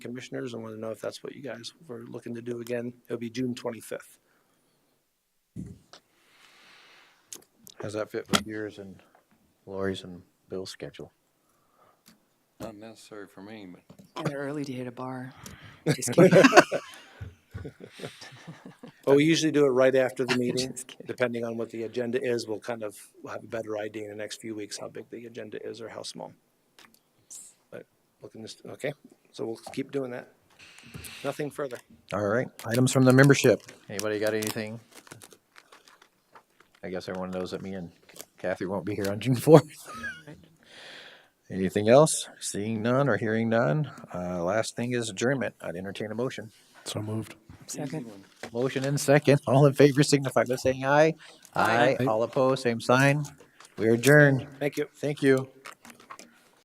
commissioners. I want to know if that's what you guys were looking to do again. It'll be June twenty-fifth. How's that fit with yours and Lori's and Bill's schedule? Not necessary for me, but And they're early to hit a bar. Just kidding. But we usually do it right after the meeting. Just kidding. Depending on what the agenda is, we'll kind of we'll have a better idea in the next few weeks how big the agenda is or how small. But looking this, okay, so we'll keep doing that. Nothing further. All right, items from the membership. Anybody got anything? I guess everyone knows that me and Kathy won't be here on June fourth. Anything else? Seeing none or hearing none? Uh, last thing is adjournment. I'd entertain a motion. So moved. Second. Motion and second. All in favor signify by saying aye. Aye. All opposed, same sign. We adjourn. Thank you. Thank you.